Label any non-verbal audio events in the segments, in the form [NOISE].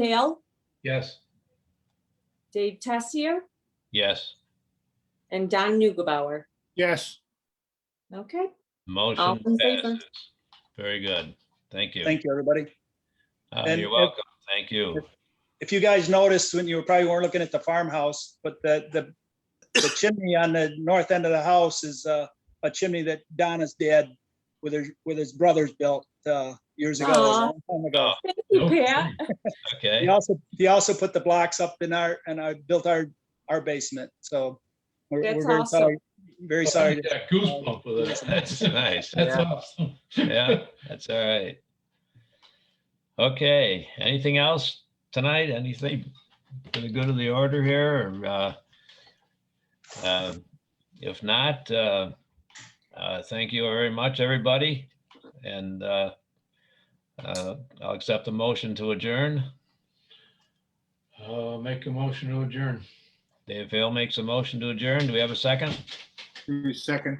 Pale, Yes. Dave Tessier, Yes, and Don Nugebauer. Yes. Okay, motion in favor. passes. Very good. Thank you. Thank you, everybody. Uh, and You're if- welcome. Thank you. If you guys noticed, when you probably weren't looking at the farmhouse, but the, the, the chimney on the north end of the house is uh, a chimney that Donna's dad with her, with his brothers built uh, years ago. a long time ago. thank you, Pat. [LAUGHS] He Okay, also, he also put the blocks up in our, and I built our, our basement, so. we're we're That's very awesome. sorry. [LAUGHS] Very sorry. to- Got goosebumps with it. [LAUGHS] that's nice. That's awesome. Yeah, that's all right. Okay, anything else tonight? Anything gonna go to the order here or, uh, uh, if not, uh, uh, thank you very much, everybody. And, uh, uh, I'll accept the motion to adjourn. Uh, make a motion to adjourn. Dave Hill makes a motion to adjourn. Do we have a second? Second.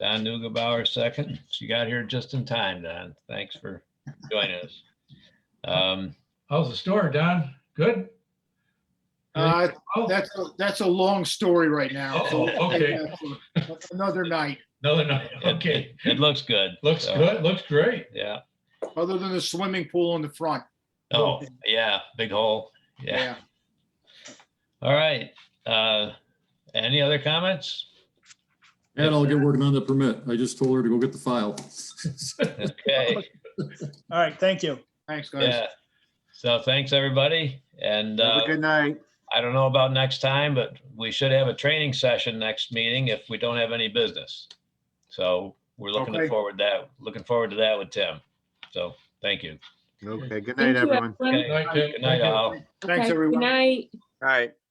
Don Nugebauer, second. She got here just in time, Don. Thanks for joining us. Um, How's the store, Don? Good? Uh, That's, a- that's a long story right now. Oh, [LAUGHS] okay. Another night, Another night. it- Okay. It it looks good. Looks so, good. Looks great. Yeah. other than the swimming pool in the front. Oh, yeah, big hole. Yeah. Yeah. All right. Uh, any other comments? And I'll get working on the permit. I just told her to go get the file. [LAUGHS] Okay, All right, thank you. Thanks, guys. yeah. So thanks, everybody. And, Have uh, a good night. I don't know about next time, but we should have a training session next meeting if we don't have any business. So we're looking Okay. forward to that, looking forward to that with Tim. So, thank you. Okay, good Thank you, everyone. Okay, Good night, Tim. Good night, all. Okay, Thanks, Good everyone. night. All right.